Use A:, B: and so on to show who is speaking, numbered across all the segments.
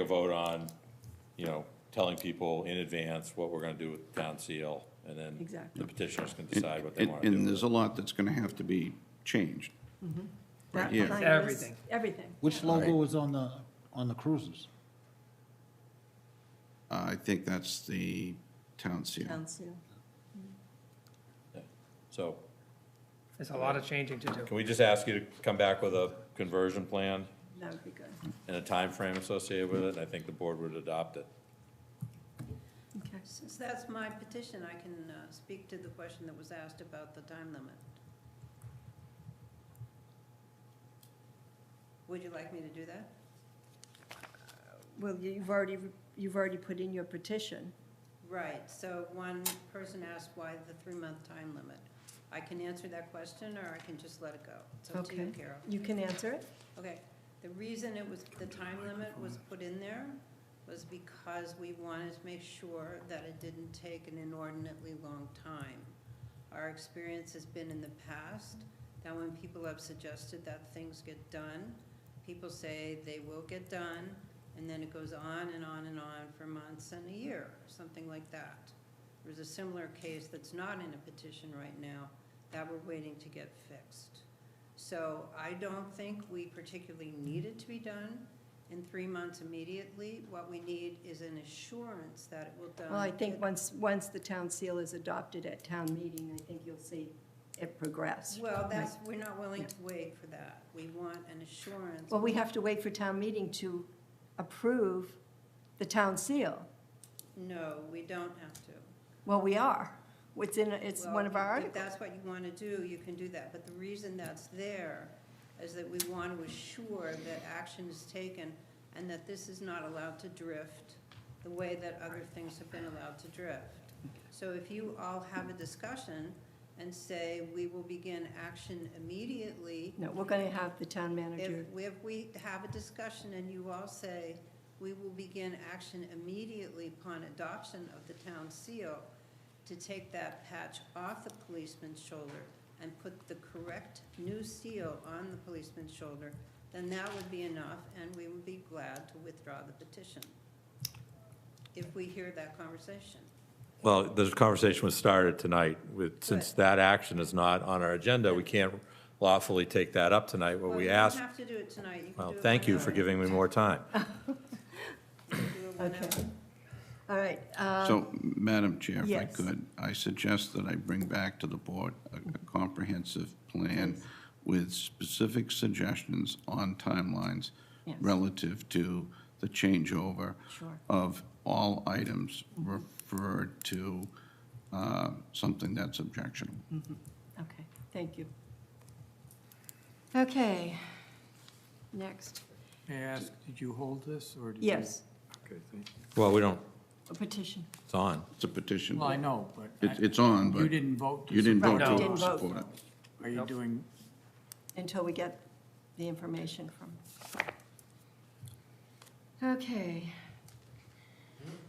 A: a vote on, you know, telling people in advance what we're gonna do with town seal, and then
B: Exactly.
A: the petitioners can
C: And-
A: decide what they
C: and-
A: wanna do.
C: And
A: with
C: there's
A: it.
C: a lot that's going to have to be changed.
B: That
C: here.
B: behind us,
D: Everything.
B: Everything.
E: Which logo was on the, on the cruisers?
C: Uh, I think that's the town seal.
B: Town seal.
A: So,
D: There's a lot of changing to do.
A: can we just ask you to come back with a conversion plan
B: That would be good.
A: and a time frame associated with it? I think the board would adopt it.
B: Okay.
F: Since that's my petition, I can uh, speak to the question that was asked about the time limit. Would you like me to do that?
B: Well, you've already, you've already put in your petition.
F: Right, so one person asked why the three-month time limit. I can answer that question, or I can just let it go. It's up to you,
B: Okay.
F: Carol.
B: You can answer it?
F: Okay, the reason it was, the time limit was put in there was because we wanted to make sure that it didn't take an inordinately long time. Our experience has been in the past, that when people have suggested that things get done, people say they will get done, and then it goes on and on and on for months and a year, something like that. There's a similar case that's not in a petition right now, that we're waiting to get fixed. So I don't think we particularly need it to be done in three months immediately. What we need is an assurance that it will done.
B: Well, I think once, once the town seal is adopted at town meeting, I think you'll see it progress.
F: Well, that's, we're not willing to wait for that. We want an assurance.
B: Well, we have to wait for town meeting to approve the town seal.
F: No, we don't have to.
B: Well, we are. It's in, it's one of our
F: Well, If
B: articles.
F: that's what you want to do, you can do that. But the reason that's there is that we want to assure that action is taken and that this is not allowed to drift the way that other things have been allowed to drift. So if you all have a discussion and say, we will begin action immediately,
B: No, we're going to have the town manager.
F: if, if we have a discussion and you all say, we will begin action immediately upon adoption of the town seal to take that patch off the policeman's shoulder and put the correct new seal on the policeman's shoulder, then that would be enough and we would be glad to withdraw the petition. If we hear that conversation.
A: Well, the conversation was started tonight with, since
F: Good.
A: that action is not on our agenda, we can't lawfully take that up tonight. What
F: Well,
A: we asked,
F: You don't have to do it tonight. You can
A: well,
F: do it
A: thank you
F: whenever.
A: for giving me more time.
F: You can do it whenever.
B: Okay. All right. uh,
C: So, Madam Chair, if I
B: yes.
C: could, I suggest that I bring back to the board a a comprehensive plan with specific suggestions on timelines
B: Yes.
C: relative to the changeover
B: Sure.
C: of all items referred to uh, something that's objectionable.
B: Okay, thank you. Okay, next.
G: May I ask, did you hold this, or did you?
B: Yes,
G: Okay, thank you.
A: Well, we don't,
B: a petition.
A: it's on.
C: It's a petition.
G: Well, I know, but.
C: It- It's on, but
G: You didn't vote to.
C: you didn't vote
B: Right,
G: support
B: we
G: it.
B: didn't
C: to
B: vote.
C: support it.
G: Are you doing,
B: until we get the information from. Okay.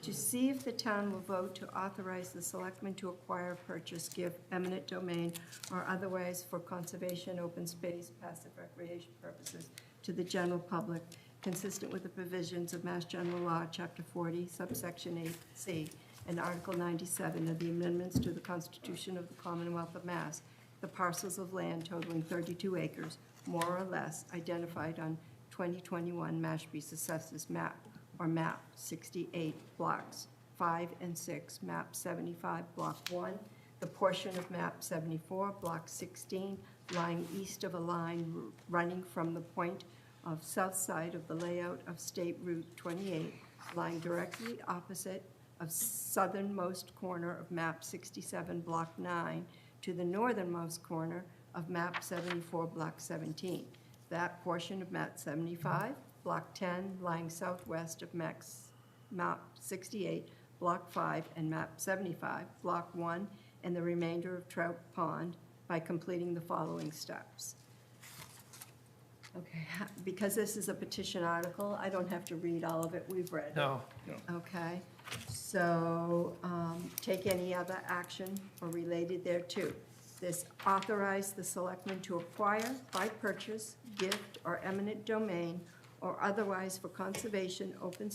B: To see if the town will vote to authorize the selectmen to acquire, purchase, give eminent domain or otherwise for conservation, open space, passive recreation purposes to the general public, consistent with the provisions of Mass General Law, Chapter 40, subsection 8C, and Article 97 of the amendments to the Constitution of the Commonwealth of Mass, the parcels of land totaling 32 acres, more or less, identified on 2021 Mashpea's Assessors Map, or MAP 68, Blocks 5 and 6, MAP 75, Block 1, the portion of MAP 74, Block 16, lying east of a line ru- running from the point of south side of the layout of State Route 28, lying directly opposite of southernmost corner of map 67, block 9, to the northernmost corner of map 74, block 17. That portion of map 75, block 10, lying southwest of max, map 68, block 5, and map 75, block 1, and the remainder of Trout Pond by completing the following steps. Okay, ha- because this is a petition article, I don't have to read all of it, we've read it.
D: No,
B: Okay, so um, take any other action or related thereto. This authorize the selectmen to acquire by purchase, gift, or eminent domain, or otherwise for conservation, open